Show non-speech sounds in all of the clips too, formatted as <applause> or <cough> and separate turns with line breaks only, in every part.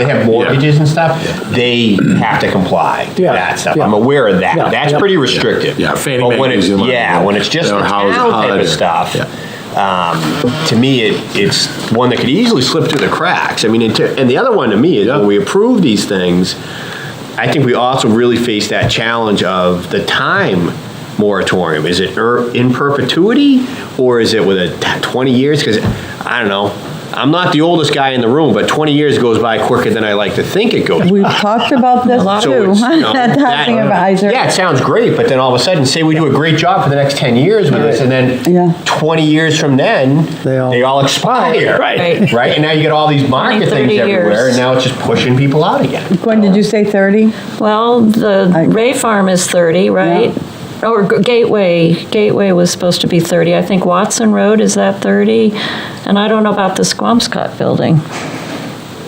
they have mortgages and stuff, they have to comply to
Yeah,
that stuff.
yeah.
I'm aware of that.
Yeah,
That's
yeah.
pretty restrictive.
Yeah, Fannie
But
Mae
when
gives
it's,
you money.
yeah, when it's just
Or
the
house-
town type
holiday.
of stuff,
Yeah.
um, to me, it, it's one that could easily slip through the cracks. I mean, and to- and the other one to me is when we approve these things, I think we also really face that challenge of the time moratorium. Is it er- in perpetuity or is it with a t- 20 years? Because, I don't know, I'm not the oldest guy in the room, but 20 years goes by quicker than I like to think it goes.
We've talked about this
So
too, <laughs>
it's, you know,
at the housing
that-
advisor.
Yeah, it sounds great, but then all of a sudden, say we do a great job for the next 10 years with this, and
Yeah.
then 20 years from then,
They all-
they all expire.
Right.
Right, and now you get all these market
20, 30
things everywhere,
years.
and now it's just pushing people out again.
Gwen, did you say 30?
Well,
I-
the Ray Farm is 30, right? Or G- Gateway, Gateway was supposed to be 30. I think Watson Road, is that 30? And I don't know about the Squamscott building.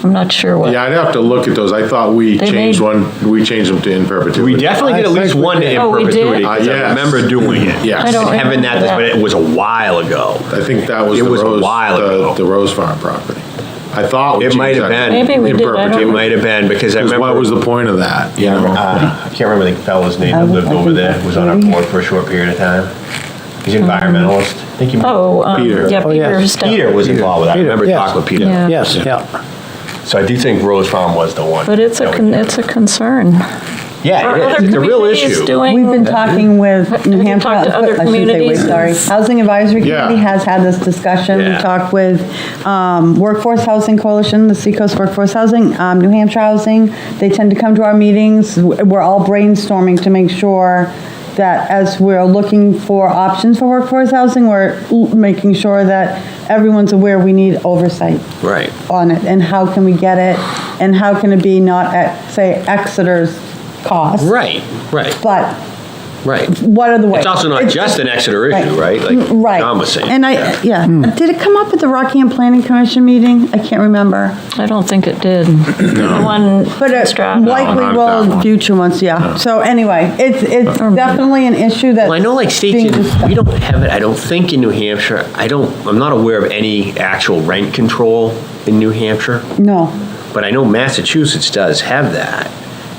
I'm not sure what.
Yeah, I'd have to look at those. I thought we
They
changed
made-
one, we changed them to in perpetuity.
We definitely did at
I
least
think we
one
did.
in
Oh, we did?
perpetuity, 'cause
Uh,
I
yes.
remember doing it.
Yes.
I don't
And having that,
remember
but
that.
it was a while ago.
I think that was
It
the
was a
Rose,
while
the
ago.
the Rose Farm property. I thought. we
It might
changed
have
that
been.
Maybe we
in
did, I don't
perpetuity.
It might have been, because I
'Cause
remember.
What was the point of that, you know?
Uh, I can't remember the fellow's name that
Um,
lived
I
over
think
there, was on our
maybe.
board for a short period of time. He's an environmentalist. I think he might-
Oh, um,
Peter.
yeah,
Oh, yes.
Peter Stout.
Peter was involved with that. I
Peter,
remember
yes.
talking with Peter.
Yeah.
Yes, yeah.
So I do think Rose Farm was the one.
But it's a,
that we-
con- it's a concern.
Yeah,
Are
it is.
other
It's a real
communities
issue.
doing-
We've been talking with New
Have you
Hampshire,
talked to other
I shouldn't say we,
communities?
sorry. Housing Advisory
Yeah.
Committee has had this discussion. We
Yeah.
talked with um, Workforce Housing Coalition, the Seacoast Workforce Housing, um, New Hampshire Housing. They tend to come to our meetings. We're all brainstorming to make sure that as we're looking for options for workforce housing, we're l- making sure that everyone's aware we need oversight
Right.
on it, and how can we get it, and how can it be not at, say, Exeter's cost?
Right, right,
But
right.
what are the ways?
It's also not
It's-
just an Exeter issue,
Right.
right?
Mm,
Like
Right.
John was saying.
And I, yeah, did it come up at the Rockingham Planning Commission meeting? I can't remember.
I don't think it did. The one
But uh, it
Stratton.
likely
not that
will in
one.
future ones, yeah. So anyway, it's, it's definitely an issue that.
Well, I know
<laughs>
like states,
being
in-
discussed.
we don't have it, I don't think in New Hampshire, I don't, I'm not aware of any actual rent control in New Hampshire,
No,
but I know Massachusetts does have that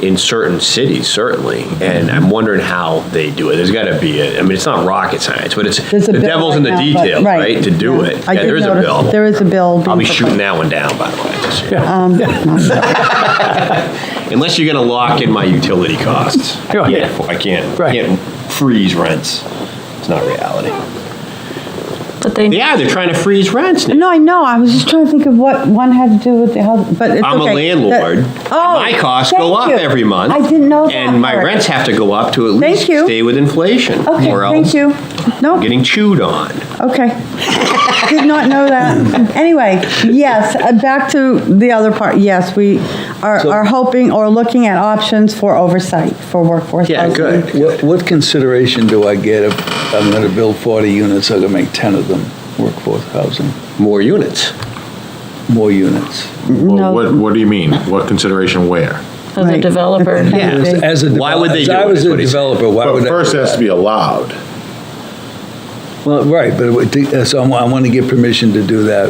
in certain cities, certainly, and I'm wondering how they do it. There's gotta be, a- I mean, it's not rocket science, but it's,
there's a
the
bill.
devil's
right
in the
now, but-
detail, right, to do
yeah.
it.
I
Yeah,
did
there is a
notice
bill.
There is a bill.
I'll be
being Um,
shooting
proposed.
that one down, by the way. just so you know. <laughs> Unless you're gonna lock in my utility costs.
Yeah.
Yeah, I can't, I
Right.
can't freeze rents. It's not reality.
But they,
Yeah, they're trying to freeze rents now.
No, I know, I was just trying to think of what one had to do with the house, but it's okay.
I'm a landlord.
That- Oh.
My costs go up
thank you.
every month.
I didn't know that.
And my
part.
rents have to go up to at
Thank
least
you.
stay with inflation.
Okay,
or
thank
else
you. No,
I'm Getting chewed on.
okay. Did not know
<laughs>
that. Anyway, yes, uh, back to the other part. Yes, we are, are hoping or looking at options for oversight for workforce
Yeah,
housing.
good.
Um, What, what consideration do I get if I'm gonna build 40 units, I'm gonna make 10 of them workforce housing,
More units.
more units?
Well, What, what do you mean? What consideration where?
as a
Right.
developer.
Yeah.
As- as a
Why would they
develop-
do it, is
If I
what
was a
he's saying.
developer, why
But
would I?
first it has to be allowed.
Well, right, but it would take- so I want to get permission to do that.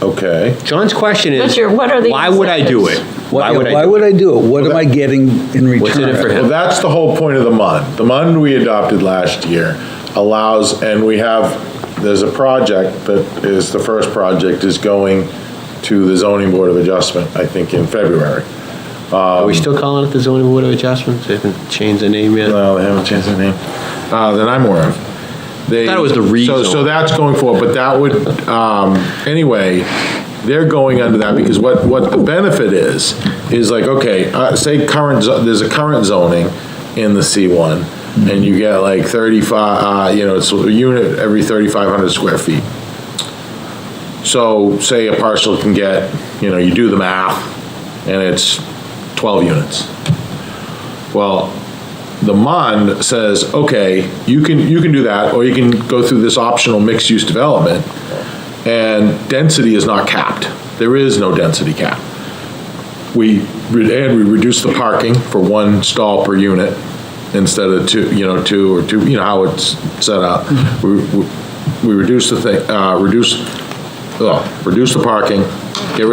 Okay.
John's question
But
is,
you're- what are the
why would I do it?
incentives?
Why would I
Why
do it?
would I do it? What am I getting in return?
What's in it for him?
Well, that's the whole point of the MUND. The MUND we adopted last year allows, and we have, there's a project that is, the first project is going to the zoning board of adjustment, I think, in February.
Are we still calling it the zoning board of adjustments? They haven't changed the name yet?
No, they haven't changed their name, uh, that I'm aware of. They-
Thought it was the rezone.
So, so that's going forward, but that would, um, anyway, they're going under that, because what, what the benefit is, is like, okay, uh, say current, zo- there's a current zoning in the C1, and you get like thirty-five, uh, you know, it's a unit every thirty-five hundred square feet. So say a parcel can get, you know, you do the math, and it's twelve units. Well, the MUND says, okay, you can, you can do that, or you can go through this optional mixed-use development, and density is not capped. There is no density cap. We, re- and we reduce the parking for one stall per unit instead of two, you know, two or two, you know, how it's set up. We, we- we reduce the thing, uh, reduce, oh, reduce the parking, get rid